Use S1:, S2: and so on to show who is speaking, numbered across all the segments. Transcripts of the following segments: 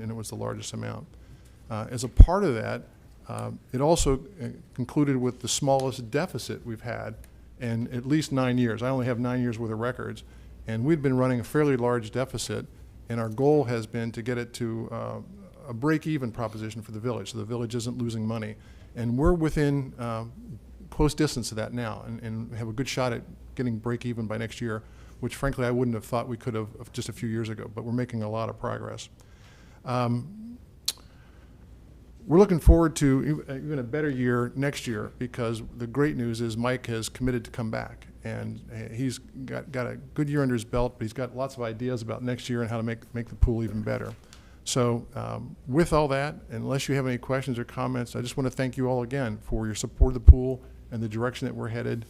S1: and it was the largest amount. Uh, As a part of that, um, it also uh, concluded with the smallest deficit we've had in at least nine years. I only have nine years worth of records, and we'd been running a fairly large deficit, and our goal has been to get it to uh, a break-even proposition for the village, so the village isn't losing money. And we're within um, close distance of that now, and- and have a good shot at getting break-even by next year, which frankly, I wouldn't have thought we could have just a few years ago, but we're making a lot of progress. Um, We're looking forward to e- even a better year next year because the great news is Mike has committed to come back. And uh, he's got, got a good year under his belt, but he's got lots of ideas about next year and how to make, make the pool even better. So um, with all that, unless you have any questions or comments, I just want to thank you all again for your support of the pool and the direction that we're headed,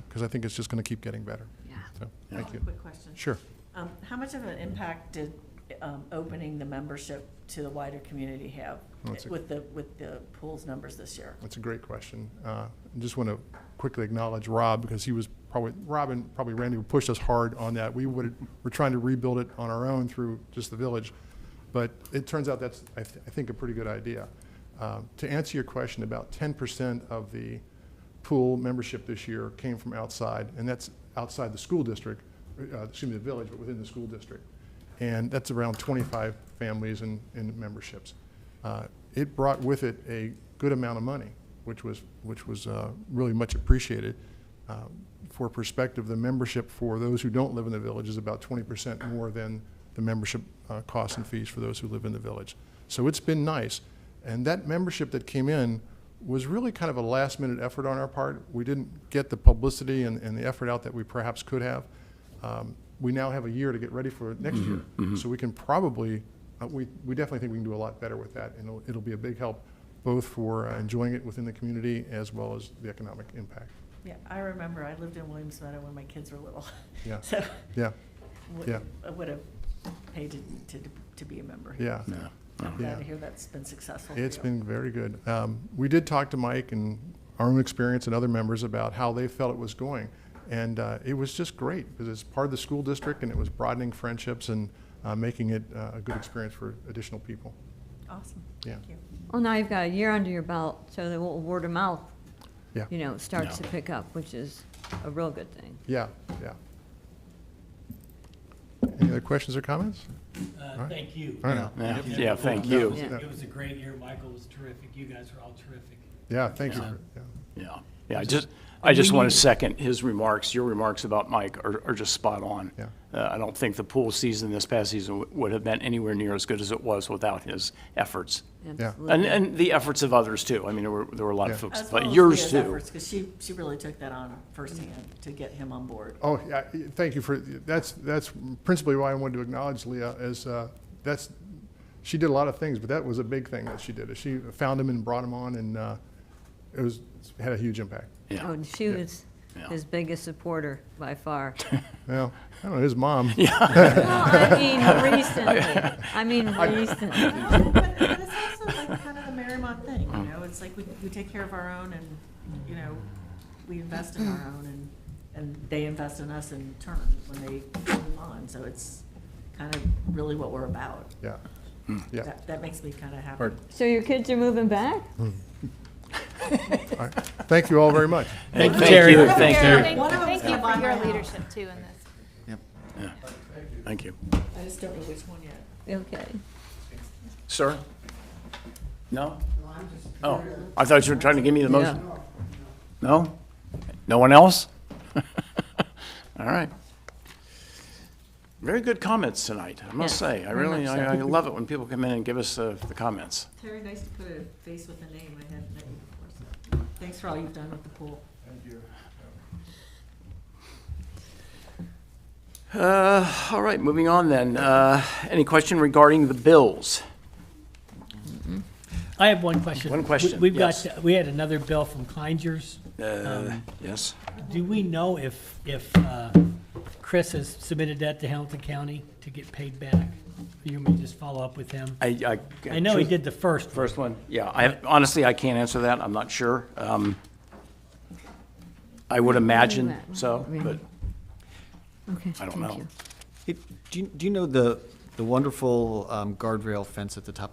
S1: because I think it's just going to keep getting better.
S2: Yeah.
S1: So, thank you.
S3: Quick question.
S1: Sure.
S3: Um, How much of an impact did um, opening the membership to the wider community have
S1: That's a-
S3: with the, with the pools numbers this year?
S1: That's a great question. Uh, I just want to quickly acknowledge Rob because he was probably, Rob and probably Randy pushed us hard on that. We would, we're trying to rebuild it on our own through just the village. But it turns out that's, I, th- I think, a pretty good idea. Uh, to answer your question, about 10% of the pool membership this year came from outside, and that's outside the school district, uh, excuse me, the village, but within the school district. And that's around 25 families and, and memberships. Uh, It brought with it a good amount of money, which was, which was uh, really much appreciated. Uh, For perspective, the membership for those who don't live in the village is about 20% more than the membership uh, costs and fees for those who live in the village. So it's been nice. And that membership that came in was really kind of a last minute effort on our part. We didn't get the publicity and, and the effort out that we perhaps could have. Um, we now have a year to get ready for next year. So we can probably, uh, we, we definitely think we can do a lot better with that. And it'll, it'll be a big help both for uh, enjoying it within the community as well as the economic impact.
S3: Yeah, I remember, I lived in Williams Meadow when my kids were little.
S1: Yeah.
S3: So
S1: Yeah,
S3: would-
S1: Yeah.
S3: I would have paid to, to, to be a member.
S1: yeah.
S4: No.
S3: I'm
S1: Yeah.
S3: glad to hear that's been successful. for
S1: It's
S3: you.
S1: been very good. Um, We did talk to Mike and our own experience and other members about how they felt it was going. And uh, it was just great because it's part of the school district and it was broadening friendships and uh, making it uh, a good experience for additional people.
S3: Awesome.
S1: Yeah.
S3: Thank you.
S2: Well, now you've got a year under your belt, so the little word of mouth,
S1: Yeah,
S2: you know, starts to
S4: Yeah.
S2: pick up, which is a real good thing.
S1: yeah, yeah. Any other questions or comments?
S5: Uh, Thank you.
S1: All right.
S4: Yeah,
S5: You know,
S4: yeah,
S5: it
S4: thank
S5: was-
S4: you.
S5: It was a great year. Michael was terrific. You guys were all terrific.
S1: Yeah, thank you.
S4: Yeah.
S1: for- yeah.
S4: Yeah, yeah, I just, I just want to second his remarks. Your remarks about Mike are, are just spot on.
S1: Yeah.
S4: Uh, I don't think the pool season this past season w- would have been anywhere near as good as it was without his efforts. And,
S2: Absolutely.
S4: and the efforts of others too. I mean, there were, there were a lot of
S1: Yeah.
S4: folks,
S3: As well
S4: but
S3: as
S4: yours
S3: Leah's
S4: too.
S3: efforts, Because she, she really took that on firsthand to get him on board.
S1: Oh, yeah, y- thank you for, that's, that's principally why I wanted to acknowledge Leah, is uh, that's, she did a lot of things, but that was a big thing that she did. is She found him and brought him on, and uh, it was, had a huge impact.
S2: Oh,
S4: Yeah,
S2: and she was
S4: Yeah.
S2: his biggest supporter by far.
S1: Well, I don't know, his mom.
S2: Well, I mean, recently, I mean, recently.
S3: No, but, but it's also like kind of the Marymount thing, you know, it's like we, we take care of our own and, you know, we invest in
S1: Mm.
S3: our own and, and they invest in us in turn when they move on, so it's kind of really what we're about.
S1: Yeah, yeah.
S3: That, that makes me kind of happy.
S1: Pardon.
S2: So your kids are moving back?
S1: All right. Thank you all very much.
S4: Thank thank you, thank you,
S6: Thank you-
S3: One of them's
S6: thank you
S3: gonna buy
S6: for
S3: my
S6: your
S3: house.
S6: leadership too in this.
S4: thank you.
S3: I just don't know which one yet.
S2: Okay.
S4: Sir? No? Oh, I thought you were trying to give me the motion. No? No one else? All right. Very good comments tonight, I must
S2: Yes,
S4: say. I
S2: very
S4: really,
S2: much
S4: I I
S2: so.
S4: love it when people come in and give us uh, the comments.
S3: Terry, nice to put a face with a name, I hadn't met you before, so, thanks for all you've done with the pool.
S4: Uh, All right, moving on then. Uh, Any question regarding the bills?
S5: I have one question.
S4: One question,
S5: We- We've
S4: yes.
S5: got, we had another bill from Kleinger's. Um,
S4: Uh, Yes?
S5: Do we know if, if uh, Chris has submitted that to Hamilton County to get paid back? You may just follow up with him.
S4: I
S5: I know he did the first. one.
S4: First one, yeah, I, honestly, I can't answer that, I'm not sure. Um, I would imagine so, but
S2: Okay,
S4: I don't
S2: thank
S4: know.
S2: you.
S7: Hey, Do you, do you know the, the the wonderful um, guardrail fence at the top